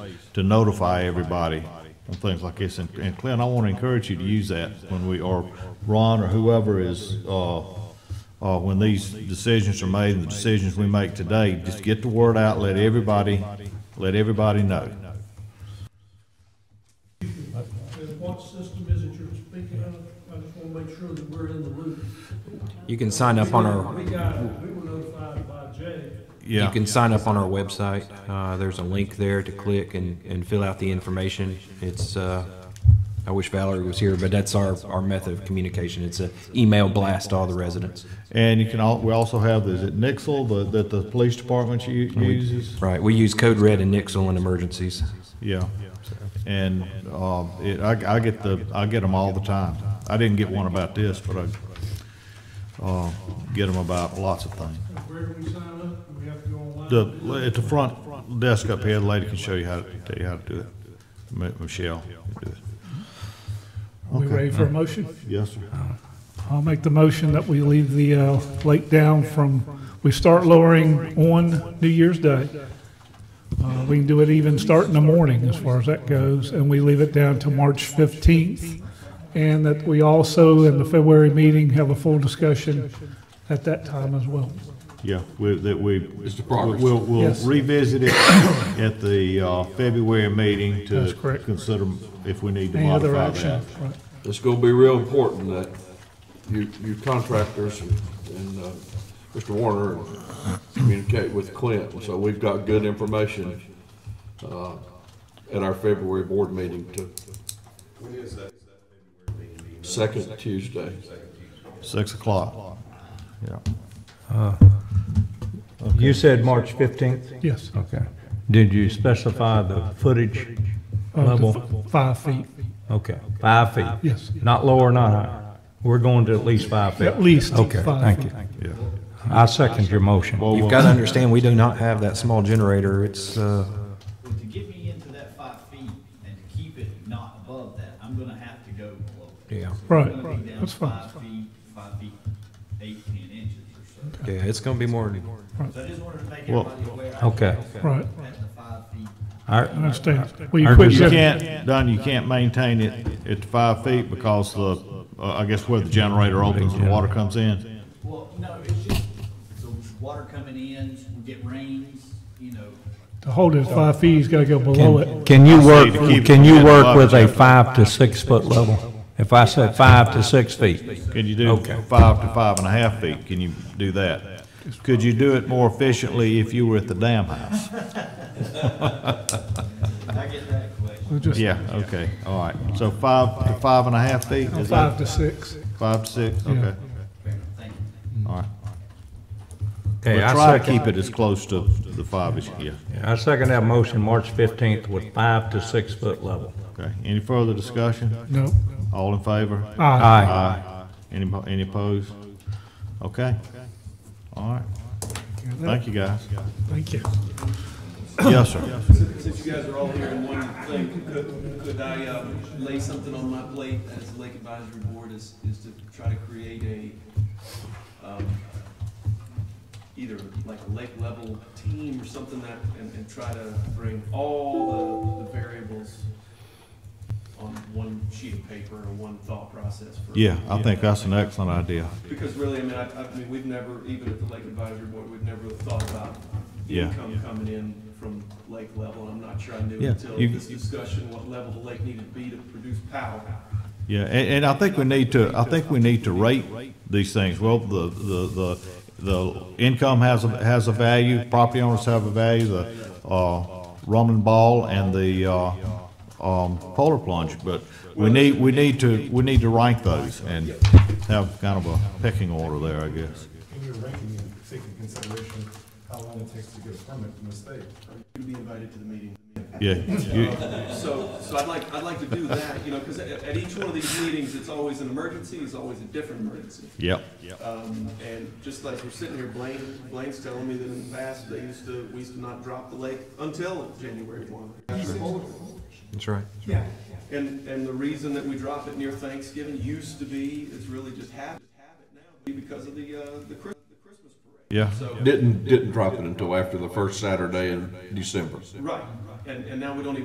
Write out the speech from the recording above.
to notify everybody and things like this. And and Clint, I want to encourage you to use that when we, or Ron or whoever is, uh, uh, when these decisions are made, and the decisions we make today, just get the word out, let everybody, let everybody know. And what system is it you're speaking of? I just want to make sure that we're in the loop. You can sign up on our, We got, we were notified by Jay. you Yeah, can sign up on our website. Uh, there's a link there to click and, and fill out the information. It's, uh, I wish Valerie was here, but that's our, our method of communication. It's a email blast to all the residents. and you can al, we also have, is it Nixle, the, that the police department u- uses? Right, we use Code Red and Nixle in emergencies. Yeah, and, um, it, I, I get the, I get them all the time. I didn't get one about this, but I, uh, get them about lots of things. Where do we sign up? Do we have to go online? The, at the front desk up here, the lady can show you how, to- tell you how to do that. Mi- Michelle. can do it. Are we ready for a motion? Yes, sir. I'll make the motion that we leave the uh, lake down from, we start lowering on New Year's Day. Uh, We can do it even start in the morning as far as that goes, and we leave it down to March 15th. And that we also, in the February meeting, have a full discussion at that time as well. Yeah, we, that we, progress. we'll, we'll Yes. revisit it at the, uh, February meeting That's to correct. consider if we need to Any other modify action? that. Right. It's gonna be real important that you, you contractors and, and, uh, Mr. Warner communicate with Clint, and so we've got good information, uh, at our February board meeting to. Second Tuesday. Six o'clock. Yeah. You said March 15th? Yes, Okay. Did you specify the footage up to level? f- five feet, Okay, five feet? yes. Not lower, not higher? We're going to at least five feet? At least Okay, five thank feet. you. I second your motion. You've got to understand, we do not have that small generator. It's, uh, But to get me into that five feet and to keep it not above that, I'm gonna have to go below. it. Yeah. So we're Right, gonna be right. down That's fine, that's Five feet, five feet, eight, ten inches or yeah, it's going to be more than, so. So I just wanted to make Well, everybody aware. I Okay. Right, At the five feet. I I understand. Well, you I quit You that- can't, Don, you can't maintain it at the five feet because the, uh, I guess where the generator opens and water comes in. Well, no, it's just, the water coming in, we get rains, you know, To hold it at five feet, he's got to go below it. Can you work, to keep it can you within work five with a inches. five to six foot level? If I said five to six feet? Can you do five to five and a half feet? Can you do that? Could you do it more efficiently if you were at the dam house? I get that question. We'll just Yeah, okay, all right. So five to five and a half feet? is that five to six. Five, to six, Yeah. okay, Thank you. all right. Mm. Okay, But I try to second, keep it as close to the five as you can. I second that motion, March 15th with five to six foot level. Okay, any further discussion? No. All in favor? Aye. Aye. Any, po- any opposed? Okay, all right. Thank you, guys. Thank you. Yes, sir. Since you guys are all here in one thing, could, could I, um, lay something on my plate as the Lake Advisory Board is, is to try to create a, um, either like a lake level team or something that, and, and try to bring all the, the variables on one sheet of paper or one thought process for. Yeah, I think that's an excellent idea. Because really, I mean, I, I mean, we've never, even at the Lake Advisory Board, we've never thought about Yeah. income coming in from lake level. I'm not sure I knew Yeah, until you- this discussion what level the lake needed to be to produce power. Yeah, and, and I think we need to, I think we need to rate these things. Well, the, the, the, the income has, a has a value, property owners have a value, the, uh, rum and ball and the, uh, um, polar plunge, but we need, we need to, we need to rank those and have kind of a pecking order there, I guess. In your ranking, you take into consideration how long it takes to get a permit from the state. You'd be invited to the meeting. Yeah, you- So, so I'd like, I'd like to do that, you know, because at, at each one of these meetings, it's always an emergency, it's always a different emergency. yep, Um, and just like we're sitting here, Blaine, Blaine's telling me that in the past, they used to, we used to not drop the lake until January one. that's right. And, and the reason that we drop it near Thanksgiving used to be, it's really just habit, habit now, be because of the, uh, the Chris- the Christmas parade. yeah. So, Didn't, didn't drop it until after the first Saturday in December. right, and, and now we don't even